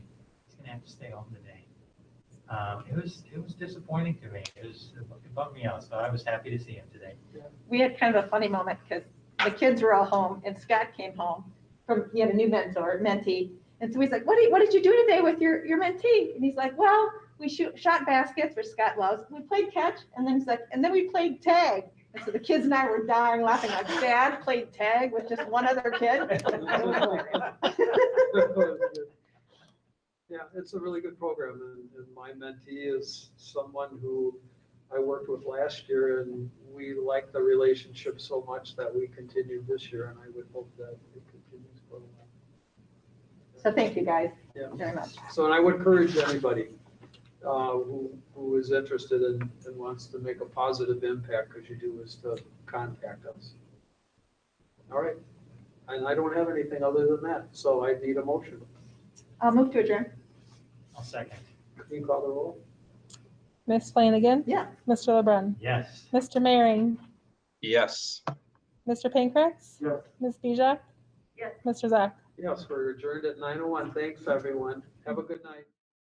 have to stay home today. Um, it was, it was disappointing to me. It was, it bummed me out, so I was happy to see him today. we had kind of a funny moment because the kids were all home and Scott came home from, he had a new mentor, mentee. And so he's like, what did, what did you do today with your, your mentee? And he's like, well, we shoot, shot baskets, which Scott loves. We played catch. And then he's like, and then we played tag. And so the kids and I were dying laughing like dad played tag with just one other kid. Yeah, it's a really good program and, and my mentee is someone who I worked with last year and we like the relationship so much that we continued this year and I would hope that it continues for a while. So thank you guys Yeah. very much. So, and I would encourage anybody uh, who, who is interested and, and wants to make a positive impact, because you do, is to contact us. All right, and I don't have anything other than that, so I need a motion. I'll move to adjourn. I'll second. Can you call the roll? Miss Flanagan? Yeah. Mr. LeBrun? Yes. Mr. Maring? Yes. Mr. Pancratz? Yes. Ms. Bijak? Yes. Mr. Zach? Yes, we're adjourned at 9:01. Thanks, oh everyone. Have a good night.